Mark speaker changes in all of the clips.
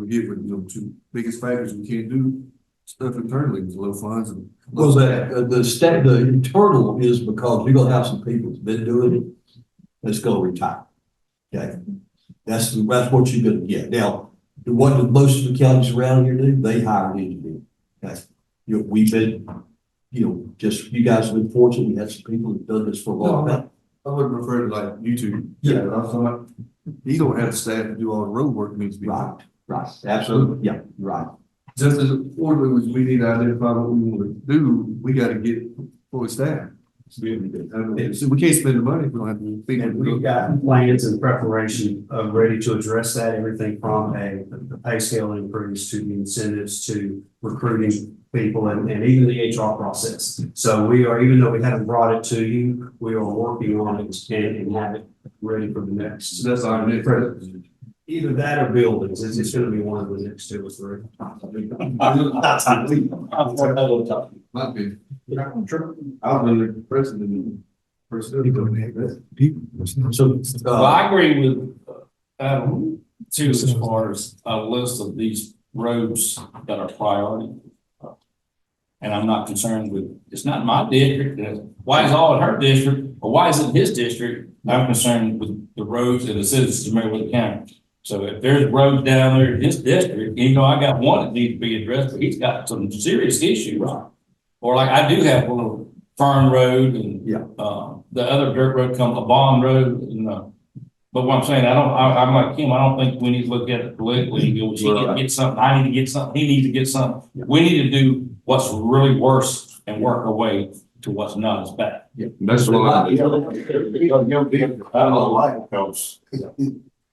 Speaker 1: forget what, you know, two biggest factors we can't do stuff internally with low funds and.
Speaker 2: Well, that, uh, the state, the internal is because you're gonna have some people that's been doing it, that's gonna retire. Okay, that's, that's what you're gonna get. Now, what do most of the counties around here do? They hire an engineer. Okay, you know, we've been, you know, just, you guys have been fortunate, we had some people who've done this for a long
Speaker 1: No,
Speaker 2: time.
Speaker 1: I would refer to like YouTube.
Speaker 2: Yeah.
Speaker 1: I was talking about, you don't have staff to do all the road work needs to be. done.
Speaker 2: Right, right, absolutely, yeah, right.
Speaker 1: Just as importantly, as we need to identify what we want to do, we gotta get fully staffed. So we can't spend the money if we don't have the people.
Speaker 3: And we've got plans in preparation of ready to address that, everything from a, the pay scale increase to the incentives to recruiting people and, and even the HR process. So we are, even though we haven't brought it to you, we are working on it and, and have it ready for the next.
Speaker 1: So that's our next.
Speaker 3: Either that or buildings, it's, it's gonna be one of the next two or three.
Speaker 1: Might be.
Speaker 2: I've been
Speaker 1: president.
Speaker 2: So,
Speaker 4: Well,
Speaker 2: uh,
Speaker 4: I agree with, uh, Adam, too, as far as a list of these roads that are priority. And I'm not concerned with, it's not my district, and why is all in her district, or why is it his district? I'm concerned with the roads and the citizens of Marywood County. So if there's roads down there in his district, you know, I got one that needs to be addressed, but he's got some serious issue, right? Or like I do have one of Fern Road and uh, the other dirt road comes, a bond road, uh, you know. But what I'm saying, I don't, I, I'm like Kim, I don't think we need to look at it politically, you know, she need to get something, I need to get something, he needs to get something. We need to do what's really worse and work our way to what's not as bad.
Speaker 1: That's why.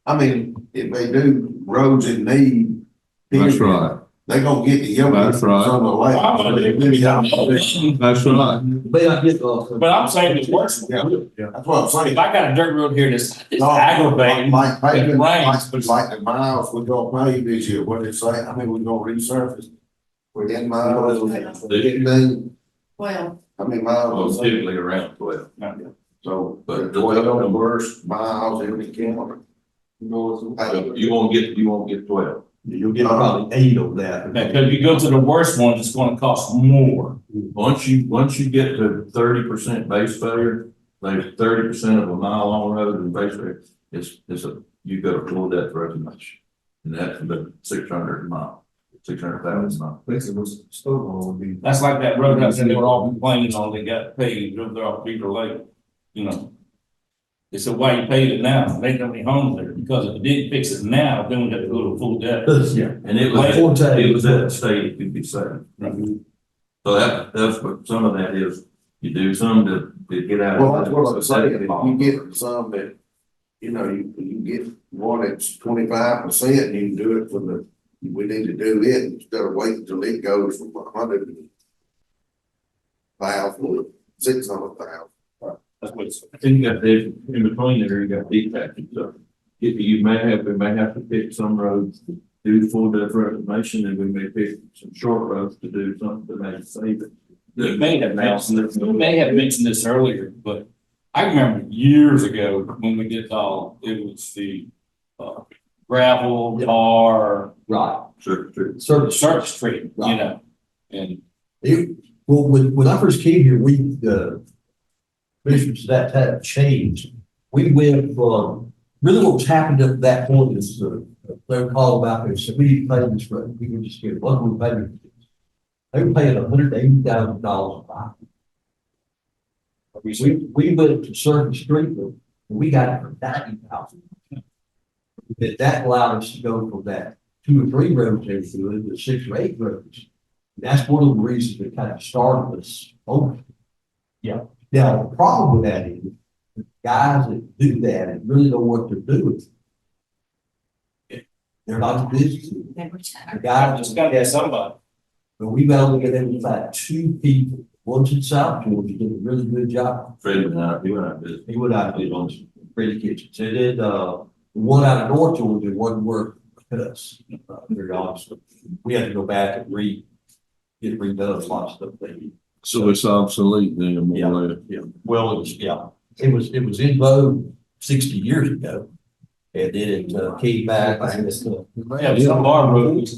Speaker 5: I mean, if they do roads in need.
Speaker 1: That's
Speaker 5: period,
Speaker 1: right.
Speaker 5: They gonna get the yellow.
Speaker 1: That's right.
Speaker 5: On the left.
Speaker 4: But
Speaker 1: That's right.
Speaker 2: may I get, uh,
Speaker 4: I'm saying it's worse, if
Speaker 5: That's what I'm saying.
Speaker 4: I got a dirt road here that's it's
Speaker 5: No,
Speaker 4: aggravating,
Speaker 5: Like, like,
Speaker 4: It rains,
Speaker 5: paving,
Speaker 4: but
Speaker 5: like,
Speaker 4: it's-
Speaker 5: like the miles we gonna pave this year, what they say, I mean, we gonna resurface. We're in miles, getting, then,
Speaker 6: Well,
Speaker 5: I mean, miles.
Speaker 1: around twelve.
Speaker 5: So, but twelve the worst miles in the county.
Speaker 7: Uh,
Speaker 5: Like,
Speaker 1: You won't get, you won't get twelve.
Speaker 2: you'll get probably eight of that.
Speaker 4: because if you go to the worst one, it's gonna cost more.
Speaker 7: Once you, once you get to thirty percent base failure, like thirty percent of a mile long road and base failure, it's, it's a, you gotta pull that for as much. And that's the six hundred mile, six hundred thousand mile.
Speaker 1: Basically, what's snowball would be.
Speaker 4: That's like that road that's in there, all complaining on, they got paid, drove there off Beaver Lake, you know. They said, why you paid it now? They don't have homes there, because if you didn't fix it now, then we have to go to full debt.
Speaker 2: Yeah.
Speaker 7: And it was,
Speaker 2: Four times.
Speaker 7: it was at the state, it could be saved.
Speaker 4: Right.
Speaker 7: So that, that's what, some of that is, you do some to, to get out. of
Speaker 5: Well, that's what I'm
Speaker 7: that.
Speaker 5: saying, if you get some that, you know, you, you get one that's twenty-five percent, you can do it for the, we need to do it instead of waiting till it goes from a hundred and thousand to six hundred thousand.
Speaker 4: That's what it's.
Speaker 7: Then you got the, in between there, you got deep package stuff. If you may have, we may have to pick some roads, to do full depth reclamation, and we may pick some short roads to do something to make it save it.
Speaker 4: You may have mentioned, you may have mentioned this earlier, but I remember years ago when we did all, it was the uh, gravel, tar,
Speaker 2: Right,
Speaker 7: Sure, sure.
Speaker 2: service.
Speaker 4: Church Street, you
Speaker 2: Right.
Speaker 4: know? And
Speaker 2: You, well, when, when I first came here, we, uh, commissioners at that time changed. We went from, really what was happening at that point is, uh, they were called about there, said, we need to pay this road, we were just here, what we pay it. They were paying hundred eighty thousand dollars a mile. We, we went to Circuit Street, and we got it for ninety thousand. That, that allowed us to go from that two or three roads they threw in to six or eight roads. That's one of the reasons that kind of started this over. Yeah. Now, the problem with that is, the guys that do that and really know what they're doing. They're not business.
Speaker 6: they were chatting.
Speaker 2: The
Speaker 4: I
Speaker 2: guys
Speaker 4: just got that somebody.
Speaker 2: But we've only got them about two people, one's in South Georgia, did a really good job.
Speaker 7: Fred and I, he went out visiting.
Speaker 2: He went out and did on some pretty kitchens. And then, uh, the one out of North Georgia, one worked with us, uh, very honestly. We had to go back and re, get redone, lots of stuff they
Speaker 1: So it's obsolete then,
Speaker 2: more
Speaker 1: or less.
Speaker 2: Well, it was, yeah, it was, it was in vogue sixty years ago.
Speaker 8: and then it uh, came back, and it's, uh,
Speaker 2: uh, Yeah, some of our roads,